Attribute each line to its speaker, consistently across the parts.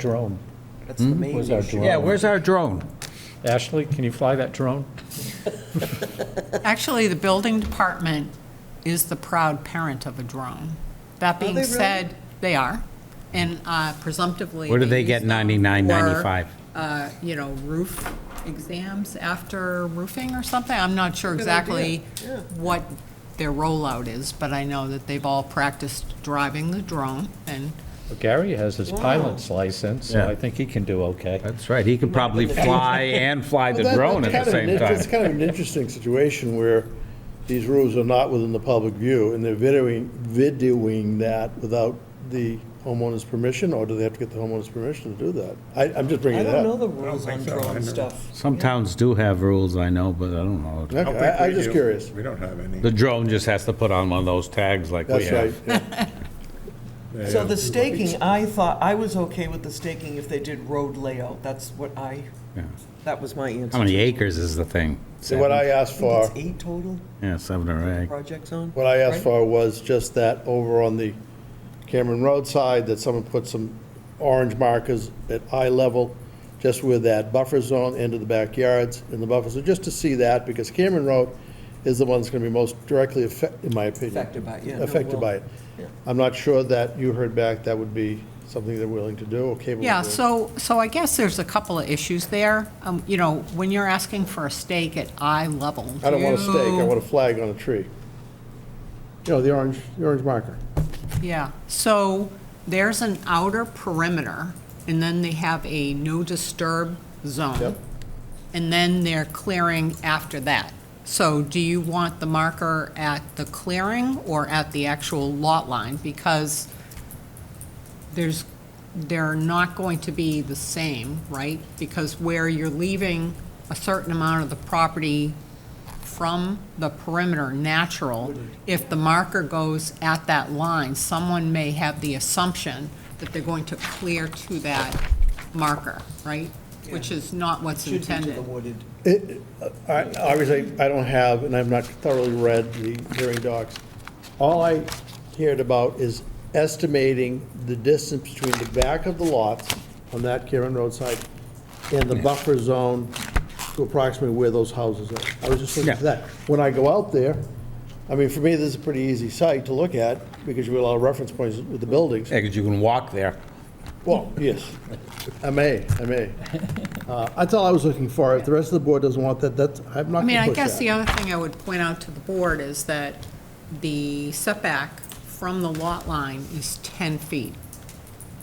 Speaker 1: drone.
Speaker 2: That's the main
Speaker 1: Where's our
Speaker 2: issue.
Speaker 1: drone?
Speaker 3: Yeah, where's Hmm? our drone?
Speaker 1: Ashley, can you fly that drone?
Speaker 4: Actually, the building department is the proud parent of a drone. That
Speaker 2: they
Speaker 4: being
Speaker 2: really?
Speaker 4: said, they are, and uh, presumptively.
Speaker 3: Where do they get
Speaker 4: use them
Speaker 3: $99.95?
Speaker 4: for, uh, You know, roof exams after roofing or something. I'm not sure exactly what their rollout is, but I know that they've all practiced driving the drone, and
Speaker 1: Well, Gary has his pilot's license, so I think he can do okay.
Speaker 3: That's right, he could probably fly and fly the
Speaker 5: Well, that-
Speaker 3: drone at
Speaker 5: that's
Speaker 3: the
Speaker 5: kind
Speaker 3: same
Speaker 5: of an- It's
Speaker 3: time.
Speaker 5: kind of an interesting situation where these rules are not within the public view, and they're videoing, videoing that without the homeowner's permission, or do they have to get the homeowner's permission to do that? I, I'm just
Speaker 2: I
Speaker 5: bringing it
Speaker 2: don't know
Speaker 5: up.
Speaker 2: the rules on drone stuff.
Speaker 3: Some towns do have rules, I know, but I don't know.
Speaker 5: Okay,
Speaker 6: I don't think
Speaker 5: I- I'm
Speaker 6: we
Speaker 5: just
Speaker 6: do.
Speaker 5: curious.
Speaker 6: We don't have any.
Speaker 3: The drone just has to put on one of those tags like we
Speaker 5: That's right.
Speaker 3: have.
Speaker 5: yeah.
Speaker 6: Yeah.
Speaker 2: So the staking, I thought, I was okay with the staking if they did road layout. That's what I,
Speaker 3: Yeah.
Speaker 2: that was my answer.
Speaker 3: How many acres is the thing?
Speaker 5: So what I asked
Speaker 2: I
Speaker 5: for,
Speaker 2: think it's eight total
Speaker 3: Yeah, seven or eight.
Speaker 2: projects on.
Speaker 5: what I asked for was just that over on the Cameron Road side, that someone put some orange markers at eye level, just with that buffer zone into the backyards and the buffer, so just to see that, because Cameron Road is the one that's gonna be most directly affected, in my opinion.
Speaker 2: Affected by it, yeah, no,
Speaker 5: Affected
Speaker 2: well,
Speaker 5: by it.
Speaker 2: yeah.
Speaker 5: I'm not sure that you heard back that would be something they're willing to do or capable of
Speaker 4: Yeah,
Speaker 5: doing.
Speaker 4: so, so I guess there's a couple of issues there. Um, You know, when you're asking for a stake at eye level.
Speaker 5: I don't want a
Speaker 4: do
Speaker 5: stake, I
Speaker 4: you-
Speaker 5: want a flag on a tree. You know, the orange, the orange marker.
Speaker 4: Yeah, so there's an outer perimeter, and then they have a no disturb zone.
Speaker 5: Yep.
Speaker 4: And then they're clearing after that. So do you want the marker at the clearing or at the actual lot line? Because there's, they're not going to be the same, right? Because where you're leaving a certain amount of the property from the perimeter natural, if the marker goes at that line, someone may have the assumption that they're going to clear to that marker, right? Which is not what's
Speaker 2: Should be to the
Speaker 4: intended.
Speaker 2: wooded.
Speaker 5: It- I- Obviously, I don't have, and I've not thoroughly read the hearing docs. All I heard about is estimating the distance between the back of the lots on that Karen Road side and the buffer zone to approximately where those houses are. I was just looking for
Speaker 3: Yeah.
Speaker 5: that. When I go out there, I mean, for me, this is a pretty easy site to look at because you have a lot of reference points with the buildings.
Speaker 3: Yeah, 'cause you can walk there.
Speaker 5: Well, yes, I may, I may. Uh, That's all I was looking for. If the rest of the board doesn't want that, that's, I'm not
Speaker 4: I mean,
Speaker 5: going to
Speaker 4: I
Speaker 5: push that.
Speaker 4: guess the other thing I would point out to the board is that the setback from the lot line is 10 feet.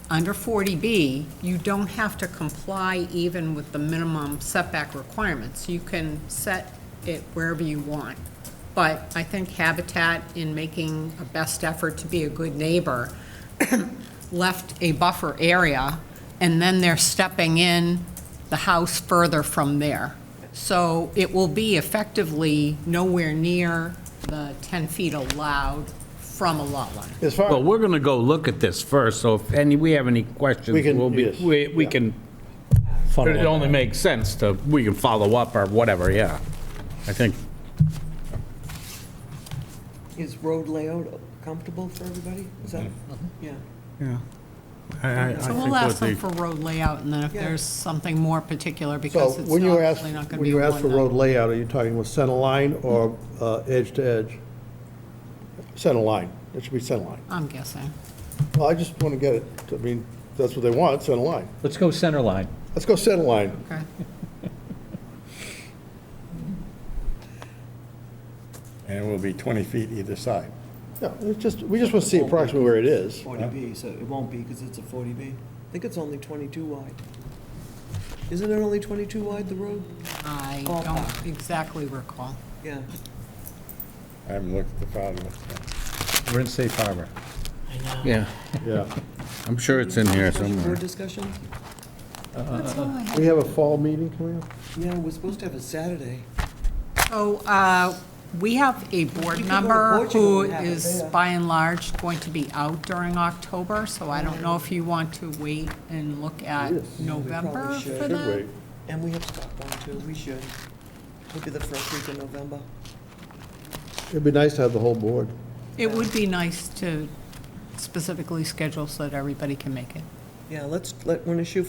Speaker 4: Under 40B, you don't have to comply even with the minimum setback requirements. You can set it wherever you want. But I think Habitat, in making a best effort to be a good neighbor, left a buffer area, and then they're stepping in the house further from there. So it will be effectively nowhere near the 10 feet allowed from a lot line.
Speaker 5: As far,
Speaker 3: Well, we're going to go look at this first, so if any, we have any
Speaker 5: We
Speaker 3: questions,
Speaker 5: can-
Speaker 3: we'll be,
Speaker 5: yes,
Speaker 3: we we
Speaker 5: yeah.
Speaker 3: can, but it only makes sense to, we can follow up or whatever, yeah. I think,
Speaker 2: Is road layout comfortable for everybody? Is that,
Speaker 5: Mm-hmm.
Speaker 2: yeah.
Speaker 3: yeah. I- I- I
Speaker 4: So
Speaker 3: think
Speaker 4: we'll
Speaker 3: what
Speaker 4: ask them
Speaker 3: the-
Speaker 4: for road layout, and then if
Speaker 2: Yeah.
Speaker 4: there's something more particular,
Speaker 5: so
Speaker 4: because it's
Speaker 5: when you
Speaker 4: not-
Speaker 5: ask,
Speaker 4: probably not going to
Speaker 5: when
Speaker 4: be a
Speaker 5: you ask for road
Speaker 4: one-night.
Speaker 5: layout, are you talking with center line or uh, edge to edge? Center line, it should be center line.
Speaker 4: I'm guessing.
Speaker 5: Well, I just want to get it, I mean, that's what they want, center line.
Speaker 1: Let's go center line.
Speaker 5: Let's go center line.
Speaker 4: Okay.
Speaker 6: And it will be 20 feet either side.
Speaker 5: No, it's just, we just want to see approximately where it is.
Speaker 2: Forty B, so it won't be because it's a forty B. I think it's only twenty-two wide. Isn't it only twenty-two wide, the road?
Speaker 4: I
Speaker 2: Oh,
Speaker 4: don't exactly recall.
Speaker 2: Yeah.
Speaker 6: I haven't looked at the file. yet.
Speaker 1: We're in safe harbor.
Speaker 3: Yeah,
Speaker 5: Yeah.
Speaker 3: I'm sure it's in here somewhere.
Speaker 2: Board discussion?
Speaker 5: We have a fall meeting coming up?
Speaker 2: Yeah, we're supposed to have a Saturday.
Speaker 4: So uh, we have a board
Speaker 2: You can go to
Speaker 4: member
Speaker 2: Portugal
Speaker 4: who
Speaker 2: and have it
Speaker 4: is,
Speaker 2: there.
Speaker 4: by and large, going to be out during October, so I don't know if you want to wait and look at
Speaker 5: Yes.
Speaker 4: November
Speaker 2: should.
Speaker 4: for
Speaker 5: Should
Speaker 4: that.
Speaker 5: we?
Speaker 2: And we have Stockholm too, we should. It'll be the first week of November.
Speaker 5: It'd be nice to have the whole board.
Speaker 4: It would be nice to specifically schedule so that everybody can make it.
Speaker 2: Yeah, let's let, when a shoe